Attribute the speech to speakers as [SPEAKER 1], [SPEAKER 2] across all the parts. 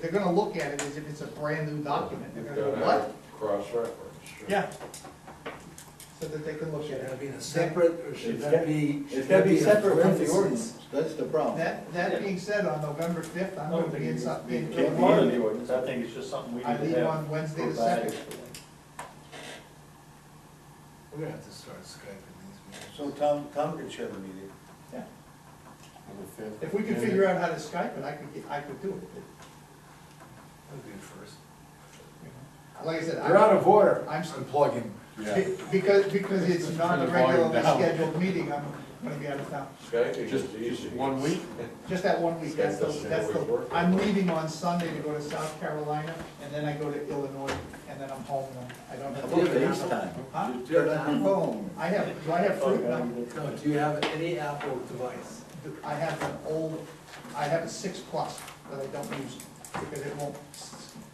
[SPEAKER 1] they're gonna look at it as if it's a brand-new document, they're
[SPEAKER 2] You've
[SPEAKER 1] gonna
[SPEAKER 2] got
[SPEAKER 1] go,
[SPEAKER 2] to
[SPEAKER 1] what?
[SPEAKER 2] have cross-reference. sure.
[SPEAKER 1] Yeah. So that they can look at
[SPEAKER 3] Should that
[SPEAKER 1] it.
[SPEAKER 3] be in a separate, or should that be?
[SPEAKER 4] It's gotta be
[SPEAKER 3] should that
[SPEAKER 4] separate from the
[SPEAKER 3] parentheses?
[SPEAKER 4] ordinance, that's the problem.
[SPEAKER 1] That, that being said, on November fifth, I'm gonna be in something,
[SPEAKER 4] It
[SPEAKER 1] being
[SPEAKER 4] can't be
[SPEAKER 1] Philly.
[SPEAKER 4] in the ordinance.
[SPEAKER 5] I think it's just something we
[SPEAKER 1] I
[SPEAKER 5] need
[SPEAKER 1] leave
[SPEAKER 5] to have.
[SPEAKER 1] on Wednesday the
[SPEAKER 4] provided
[SPEAKER 1] second.
[SPEAKER 4] for.
[SPEAKER 3] We're gonna have to start Skyping these
[SPEAKER 4] So
[SPEAKER 3] meetings.
[SPEAKER 4] Tom, Tom can chair the meeting.
[SPEAKER 1] Yeah. If we could figure out how to Skype it, I could, get- I could do it.
[SPEAKER 3] That'd be a first.
[SPEAKER 1] Like I said,
[SPEAKER 6] You're out
[SPEAKER 1] I'm,
[SPEAKER 6] of order.
[SPEAKER 1] I'm-
[SPEAKER 6] plugging.
[SPEAKER 1] be- because, because it's not a
[SPEAKER 6] Turn the volume
[SPEAKER 1] regularly
[SPEAKER 6] down.
[SPEAKER 1] scheduled meeting, I'm gonna be out of town.
[SPEAKER 2] Skyping is easy.
[SPEAKER 6] One week?
[SPEAKER 1] Just that one week, that's the, that's the, I'm leaving on Sunday to go to South Carolina, and then I go to Illinois, and then I'm home, and I don't have.
[SPEAKER 4] Do FaceTime.
[SPEAKER 1] Huh?
[SPEAKER 4] Just do it on your phone.
[SPEAKER 1] I have, do I have fruit? No.
[SPEAKER 3] No, do you have any Apple device?
[SPEAKER 1] I have an old, I have a six plus that I don't use, because it won't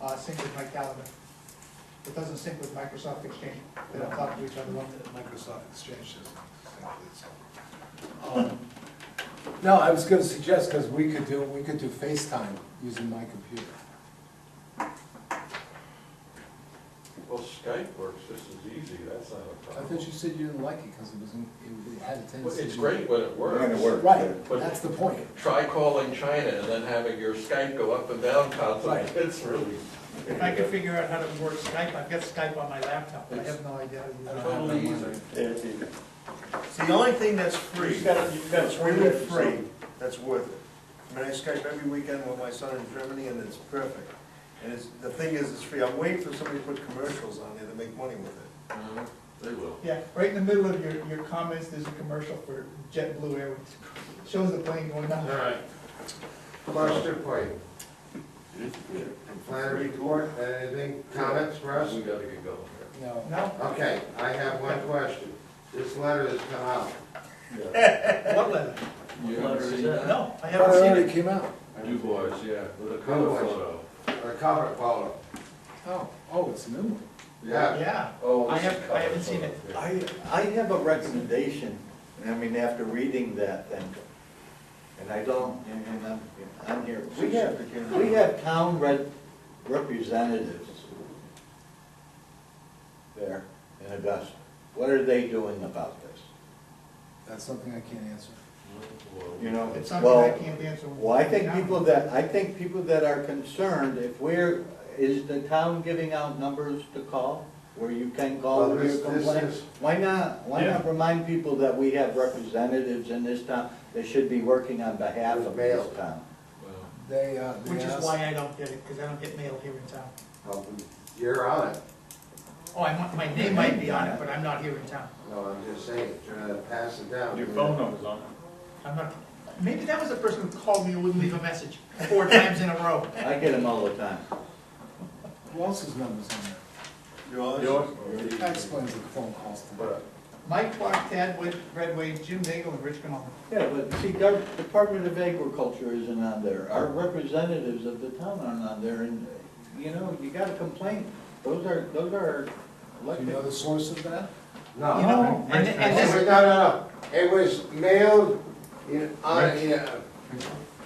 [SPEAKER 1] uh, sync with my calendar. It doesn't sync with Microsoft Exchange, they don't talk to each other.
[SPEAKER 3] Microsoft Exchange doesn't.
[SPEAKER 6] No, I was gonna suggest, because we could do, we could do FaceTime using my computer.
[SPEAKER 2] Well, Skype works just as easy, that's not a
[SPEAKER 6] I thought
[SPEAKER 2] problem.
[SPEAKER 6] you said you didn't like it because it was, in- it had a
[SPEAKER 2] Well,
[SPEAKER 6] tendency.
[SPEAKER 2] It's
[SPEAKER 6] to-
[SPEAKER 2] great when it works.
[SPEAKER 4] When it works.
[SPEAKER 6] Right, that's the point.
[SPEAKER 2] Try calling China and then having your Skype go up and down constantly,
[SPEAKER 6] Right.
[SPEAKER 2] it's really.
[SPEAKER 1] If I could figure out how to work Skype, I've got Skype on my laptop, but I have no idea
[SPEAKER 6] I
[SPEAKER 1] how to
[SPEAKER 6] don't
[SPEAKER 1] use it.
[SPEAKER 6] have that
[SPEAKER 2] Totally easy.
[SPEAKER 6] one.
[SPEAKER 4] It's easy.
[SPEAKER 7] It's the only thing that's free,
[SPEAKER 4] You've got- you've got
[SPEAKER 7] that's
[SPEAKER 4] three
[SPEAKER 7] really
[SPEAKER 4] of
[SPEAKER 7] free,
[SPEAKER 4] them.
[SPEAKER 7] that's worth it. I mean, I Skype every weekend with my son in Germany, and it's perfect. And it's, the thing is, it's free, I'm waiting for somebody to put commercials on there to make money with it.
[SPEAKER 2] Uh, They will.
[SPEAKER 1] Yeah, right in the middle of your, your comments, there's a commercial for JetBlue Airways, shows the plane going down.
[SPEAKER 8] Question for you. Plan report, anything, comments for us?
[SPEAKER 2] We gotta get going here.
[SPEAKER 6] No.
[SPEAKER 1] No,
[SPEAKER 8] Okay, I have one question. This letter has come out.
[SPEAKER 1] what letter?
[SPEAKER 2] You haven't seen that?
[SPEAKER 1] No, I
[SPEAKER 6] I thought it
[SPEAKER 1] haven't seen
[SPEAKER 6] already
[SPEAKER 1] it.
[SPEAKER 6] came out.
[SPEAKER 2] Du Bois, yeah, with a cover
[SPEAKER 8] Bois.
[SPEAKER 2] photo.
[SPEAKER 8] A cover photo.
[SPEAKER 6] Oh, oh, it's a new one.
[SPEAKER 8] Yeah.
[SPEAKER 1] Yeah,
[SPEAKER 2] Oh,
[SPEAKER 1] I
[SPEAKER 2] this is
[SPEAKER 1] haven't- I
[SPEAKER 2] cover
[SPEAKER 1] haven't seen
[SPEAKER 2] photo,
[SPEAKER 1] it.
[SPEAKER 2] yeah.
[SPEAKER 4] I, I have a recommendation, and I mean, after reading that, then, and I don't, and and I'm, I'm here. We have, we have town rep- representatives there in Augusta. What are they doing about this?
[SPEAKER 6] That's something I can't answer.
[SPEAKER 2] Well,
[SPEAKER 4] You know,
[SPEAKER 1] it's something I
[SPEAKER 4] well,
[SPEAKER 1] can't answer.
[SPEAKER 4] well, I think
[SPEAKER 1] now.
[SPEAKER 4] people that, I think people that are concerned, if we're, is the town giving out numbers to call? Where you can call
[SPEAKER 8] Well,
[SPEAKER 4] with
[SPEAKER 8] this-
[SPEAKER 4] your
[SPEAKER 8] this
[SPEAKER 4] complaints?
[SPEAKER 8] is-
[SPEAKER 4] Why not, why not remind people that we have representatives in this town that should be working on behalf of this
[SPEAKER 8] Mail.
[SPEAKER 4] town?
[SPEAKER 2] well,
[SPEAKER 6] They, uh, they
[SPEAKER 1] Which is
[SPEAKER 6] asked-
[SPEAKER 1] why I don't get it, because I don't get mail here in town.
[SPEAKER 8] Well, You're on it.
[SPEAKER 1] Oh, I, might- my name might be on it, but I'm not here in town.
[SPEAKER 8] No, I'm just saying, trying to pass it down.
[SPEAKER 5] Your phone number's on it.
[SPEAKER 1] I'm not, maybe that was the person who called me and wouldn't leave a message four times in a row.
[SPEAKER 4] I get them all the time.
[SPEAKER 6] Who else's number's on there? That explains the phone calls to me.
[SPEAKER 2] But
[SPEAKER 1] Mike Clark, Tad Wood, Red Wave, Jim Daigle, and Rich Canal.
[SPEAKER 4] Yeah, but see, our Department of Agriculture isn't on there, our representatives of the town aren't on there, and, you know, you gotta complain. Those are, those are
[SPEAKER 6] Do you know
[SPEAKER 4] elected.
[SPEAKER 6] the source of that?
[SPEAKER 8] No.
[SPEAKER 1] You know, and, and
[SPEAKER 8] It was-
[SPEAKER 1] this,
[SPEAKER 8] No, no, no, it was mailed, in- on, yeah,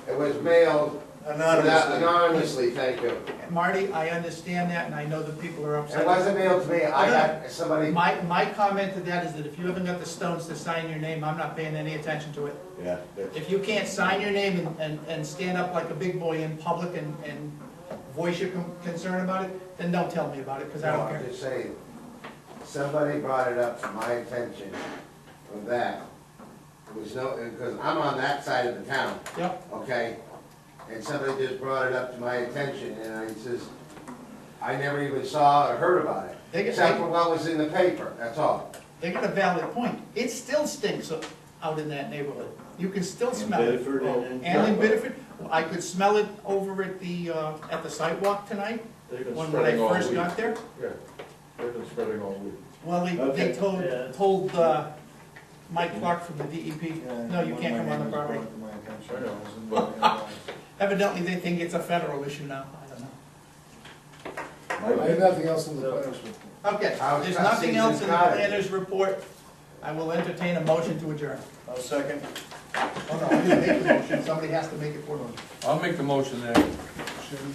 [SPEAKER 8] it was mailed
[SPEAKER 7] Anonymously.
[SPEAKER 8] anonymously, thank you.
[SPEAKER 1] Marty, I understand that, and I know that people are upset.
[SPEAKER 8] It wasn't mailed to me, I got somebody,
[SPEAKER 1] My, my comment to that is that if you haven't got the stones to sign your name, I'm not paying any attention to it.
[SPEAKER 4] Yeah.
[SPEAKER 1] If you can't sign your name and, and, and stand up like a big boy in public and, and voice your con- concern about it, then don't tell me about it, because I
[SPEAKER 8] no,
[SPEAKER 1] don't
[SPEAKER 8] I'm
[SPEAKER 1] care.
[SPEAKER 8] just saying, somebody brought it up to my attention of that. It was no, because I'm on that side of the town,
[SPEAKER 1] Yep,
[SPEAKER 8] okay? And somebody just brought it up to my attention, and I says, I never even saw or heard about it.
[SPEAKER 1] They get-
[SPEAKER 8] Except for what was in the paper, that's all.
[SPEAKER 1] they got a valid point. It still stinks o- out in that neighborhood. You can still smell it.
[SPEAKER 4] Bedford and-
[SPEAKER 1] And in Bedford, I could smell it over at the, uh, at the sidewalk tonight,
[SPEAKER 2] They've been
[SPEAKER 1] when when I
[SPEAKER 2] spreading all
[SPEAKER 1] first
[SPEAKER 2] week.
[SPEAKER 1] got there.
[SPEAKER 2] Yeah, they've been spreading all week.
[SPEAKER 1] Well, they, they
[SPEAKER 4] Okay.
[SPEAKER 1] told,
[SPEAKER 5] Yeah.
[SPEAKER 1] told, uh, Mike Clark from the DEP, no, you can't come on the property. Evidently, they think it's a federal issue now, I don't know.
[SPEAKER 6] I have nothing else in the planner's report.
[SPEAKER 1] Okay,
[SPEAKER 8] How's
[SPEAKER 1] there's
[SPEAKER 8] that
[SPEAKER 1] nothing
[SPEAKER 8] season's
[SPEAKER 1] else in the
[SPEAKER 8] cottage?
[SPEAKER 1] planner's report. I will entertain a motion to adjourn.
[SPEAKER 7] I'll second.
[SPEAKER 1] Oh, no, I didn't make the motion, somebody has to make it for me.
[SPEAKER 6] I'll make the motion there.